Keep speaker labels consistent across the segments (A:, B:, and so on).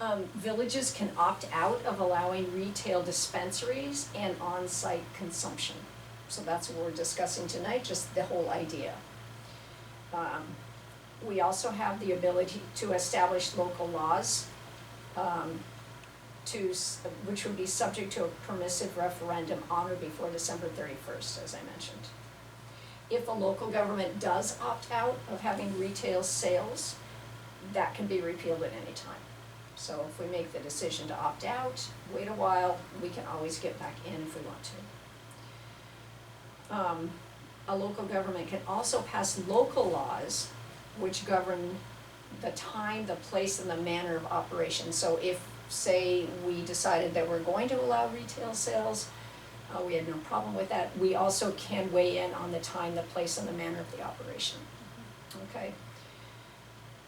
A: um, villages can opt out of allowing retail dispensaries and on-site consumption. So that's what we're discussing tonight, just the whole idea. Um, we also have the ability to establish local laws, um, to, s- which would be subject to a permissive referendum on or before December thirty-first, as I mentioned. If a local government does opt out of having retail sales, that can be repealed at any time. So if we make the decision to opt out, wait a while, we can always get back in if we want to. Um, a local government can also pass local laws which govern the time, the place, and the manner of operation. So if, say, we decided that we're going to allow retail sales, uh, we had no problem with that, we also can weigh in on the time, the place, and the manner of the operation. Okay?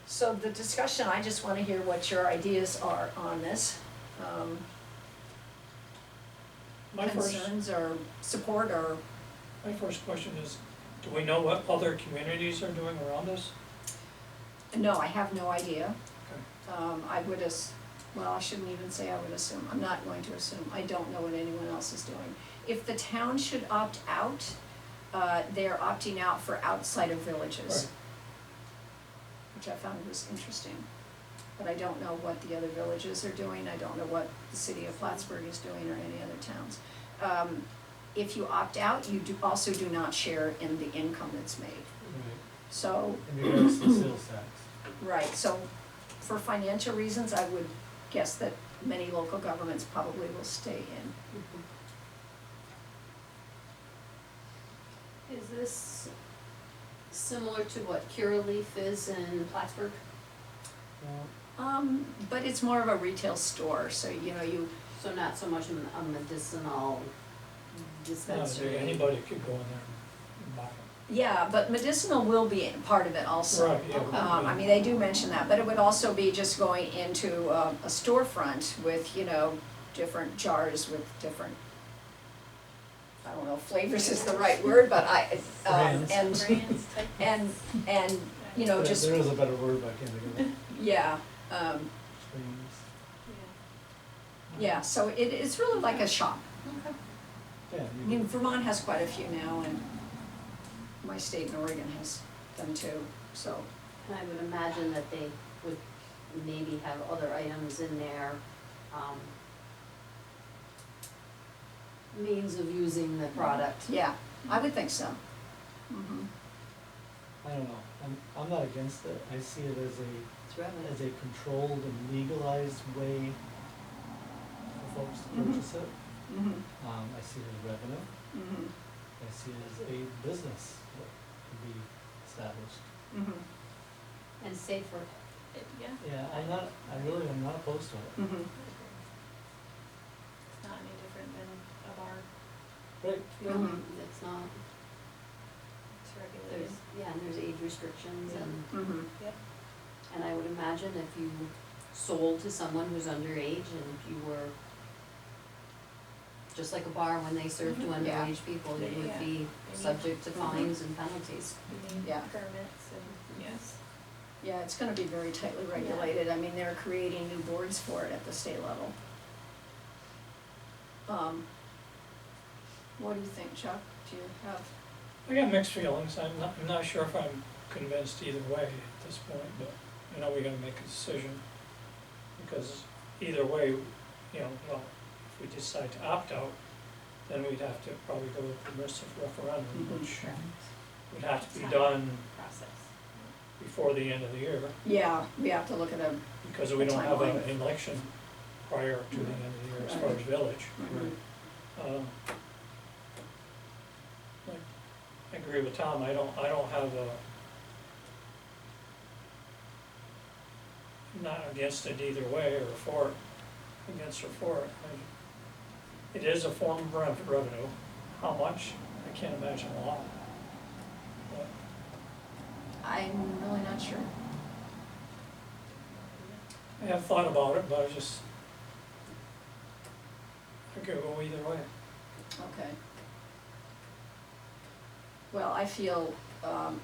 A: So the discussion, I just wanna hear what your ideas are on this, um,
B: My first,
A: concerns or support or,
B: my first question is, do we know what other communities are doing around us?
A: no, I have no idea. Um, I would as, well, I shouldn't even say I would assume, I'm not going to assume, I don't know what anyone else is doing. If the town should opt out, uh, they're opting out for outside of villages. Which I found was interesting, but I don't know what the other villages are doing, I don't know what the city of Plattsburgh is doing or any other towns. Um, if you opt out, you do, also do not share in the income that's made,
C: Right,
A: so
C: and it goes to sales tax.
A: Right, so for financial reasons, I would guess that many local governments probably will stay in.
D: Is this similar to what Curaleaf is in Plattsburgh?
A: Um, but it's more of a retail store, so you know, you,
D: So not so much a
B: Not
D: medicinal
B: that
D: dispensary?
B: Anybody could go in there and buy it.
A: yeah, but medicinal will be part of it also.
B: Right, yeah.
D: Okay.
A: Um, I mean, they do mention that, but it would also be just going into uh, a storefront with, you know, different jars with different, I don't know, flavors is the right word, but I, um,
C: Brands.
A: and, and, and, you know,
C: There-
A: just,
C: There is a better word, but I can't think of it.
A: yeah, um,
C: Screens.
A: Yeah, so it, it's really like a shop.
D: Okay.
C: Yeah,
A: I
C: you
A: mean, Vermont has quite a few now, and my state in Oregon has them too, so.
D: And I would imagine that they would maybe have other items in there, um, means of using the product.
A: Yeah, I would think so. Mhm.
C: I don't know, I'm, I'm not against it, I see it as a,
D: It's revenue.
C: as a controlled and legalized way for folks to
A: Mhm.
C: purchase it.
A: Mhm.
C: Um, I see it as revenue,
A: Mhm.
C: I see it as a business that can be established.
A: Mhm.
D: And safer.
E: Yeah,
C: Yeah, I'm not, I really am not opposed to it.
A: Mhm.
E: it's not any different than a bar,
C: Right,
A: Mhm.
D: It's not,
E: it's regulated.
D: there's, yeah, and there's age restrictions and.
A: Mhm.
D: And I would imagine if you sold to someone who's underage and if you were, just like a bar when they serve to
A: Mhm. Yeah.
D: underage people, you would
E: Yeah.
D: be subject to
A: Mhm.
D: fines and penalties.
E: You need
A: Yeah.
E: permits and, yes.
A: Yeah, it's gonna be very tightly regulated, I mean, they're creating new boards for it at the state level. Um, what do you think, Chuck? Do you have?
B: I got mixed feelings, I'm not, I'm not sure if I'm convinced either way at this point, but, you know, we gotta make a decision. Because either way, you know, well, if we decide to opt out, then we'd have to probably go with permissive referendum,
A: Mhm.
B: which would have to be done
E: Process.
B: before the end of the year.
A: Yeah, we have to look at a,
B: Because we don't have
A: Timeline.
B: an election prior to the end of the year as far as village.
C: right.
B: Um, like, I agree with Tom, I don't, I don't have a, I'm not against it either way or for, it, against or for. it. I- It is a form of rev- revenue, how much, I can't imagine a lot. But
A: I'm really not sure.
B: I have thought about it, but I just, I could go either way.
A: Okay. Well, I feel, um,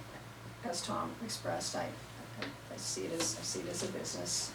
A: as Tom expressed, I, I see it as, I see it as a business,